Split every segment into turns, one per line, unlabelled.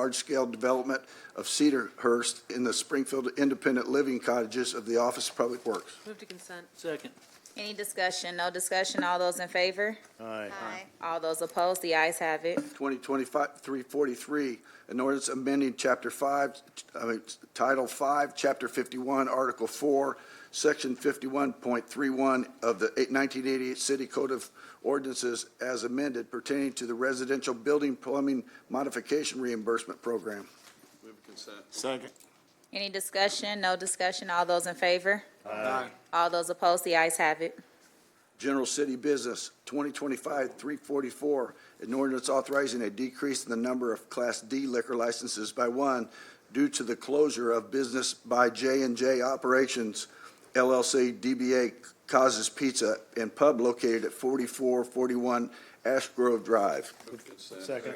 large-scale development of Cedarhurst in the Springfield Independent Living Cottages of the Office of Public Works.
Move to consent.
Second.
Any discussion? No discussion? All those in favor?
Aye.
All those opposed? The ayes have it.
2025-343, an ordinance amending Chapter 5, I mean, Title 5, Chapter 51, Article 4, Section 51.31 of the 1988 City Code of Ordinances as amended pertaining to the residential building plumbing modification reimbursement program.
Second.
Any discussion? No discussion? All those in favor?
Aye.
All those opposed? The ayes have it.
General City Business, 2025-344, an ordinance authorizing a decrease in the number of Class D liquor licenses by one due to the closure of business by j and J Operations LLC DBA Causes Pizza and Pub located at 4441 Ash Grove Drive.
Second.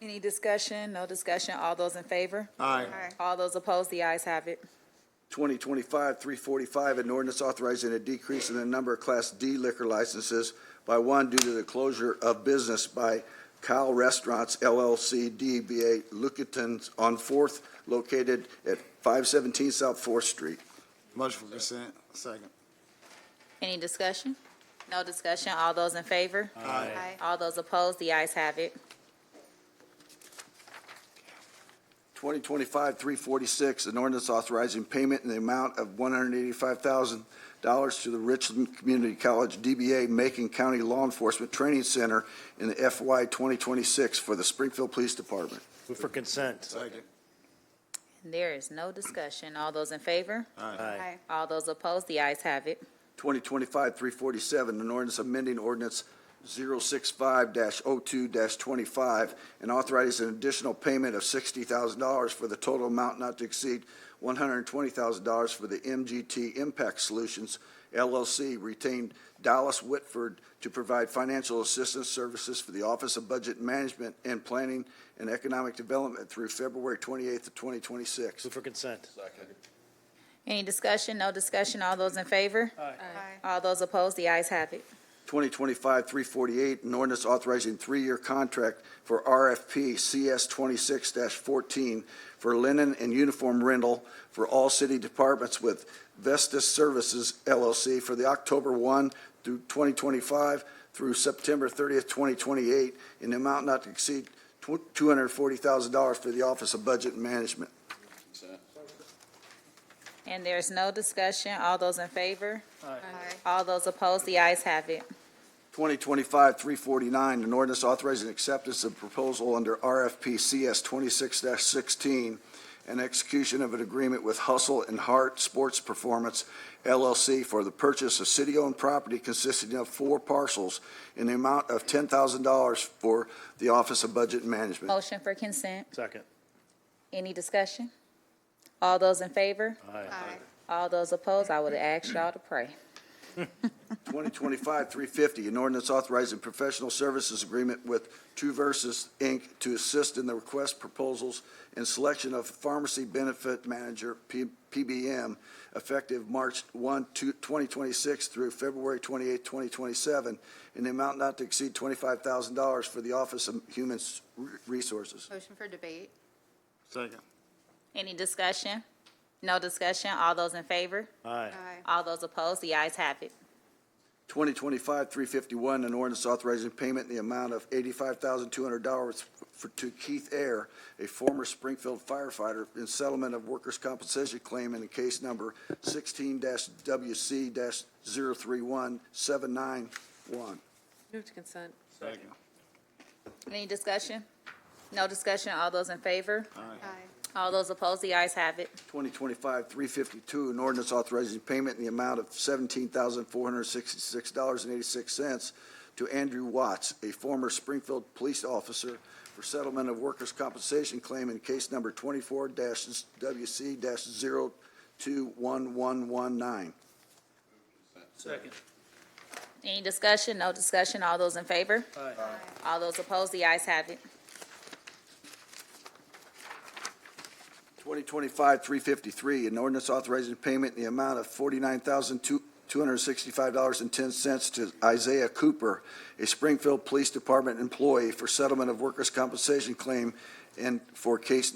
Any discussion? No discussion? All those in favor?
Aye.
All those opposed? The ayes have it.
2025-345, an ordinance authorizing a decrease in the number of Class D liquor licenses by one due to the closure of business by Kyle Restaurants LLC DBA Lucatons on Fourth located at 517 South Fourth Street.
Motion for consent. Second.
Any discussion? No discussion? All those in favor?
Aye.
All those opposed? The ayes have it.
2025-346, an ordinance authorizing payment in the amount of $185,000 to the Richland Community College DBA Macon County Law Enforcement Training Center in the FY 2026 for the Springfield Police Department.
Move for consent.
Second.
There is no discussion. All those in favor?
Aye.
All those opposed? The ayes have it.
2025-347, an ordinance amending ordinance 065-02-25, and authorizing an additional payment of $60,000 for the total amount not to exceed $120,000 for the MGT Impact Solutions LLC retained Dallas Whitford to provide financial assistance services for the Office of Budget Management and Planning and Economic Development through February 28th of 2026.
Move for consent.
Any discussion? No discussion? All those in favor?
Aye.
All those opposed? The ayes have it.
2025-348, an ordinance authorizing three-year contract for RFP CS 26-14 for linen and uniform rental for all city departments with Vestas Services LLC for the October 1 through 2025 through September 30th, 2028, in the amount not to exceed tw- $240,000 for the Office of Budget and Management.
And there's no discussion. All those in favor?
Aye.
All those opposed? The ayes have it.
2025-349, an ordinance authorizing acceptance of proposal under RFP CS 26-16 and execution of an agreement with Hustle and Hart Sports Performance LLC for the purchase of city-owned property consisting of four parcels in the amount of $10,000 for the Office of Budget and Management.
Motion for consent.
Second.
Any discussion? All those in favor?
Aye.
All those opposed? I would ask y'all to pray.
2025-350, an ordinance authorizing professional services agreement with Two Versus, Inc. to assist in the request proposals and selection of pharmacy benefit manager, P- PBM, effective March 1, two- 2026 through February 28, 2027, in the amount not to exceed $25,000 for the Office of Human S- Re- Resources.
Motion for debate.
Second.
Any discussion? No discussion? All those in favor?
Aye.
Aye.
All those opposed? The ayes have it.
2025-351, an ordinance authorizing payment in the amount of $85,200 for- to Keith Air, a former Springfield firefighter, in settlement of workers' compensation claim in the case number 16-WC-031791.
Move to consent.
Second.
Any discussion? No discussion? All those in favor?
Aye.
All those opposed? The ayes have it.
2025-352, an ordinance authorizing payment in the amount of $17,466.86 to Andrew Watts, a former Springfield police officer, for settlement of workers' compensation claim in case number 24-WC-021119.
Second.
Any discussion? No discussion? All those in favor?
Aye.
All those opposed? The ayes have it.
2025-353, an ordinance authorizing payment in the amount of $49,265.10 to Isaiah Cooper, a Springfield Police Department employee, for settlement of workers' compensation claim and for case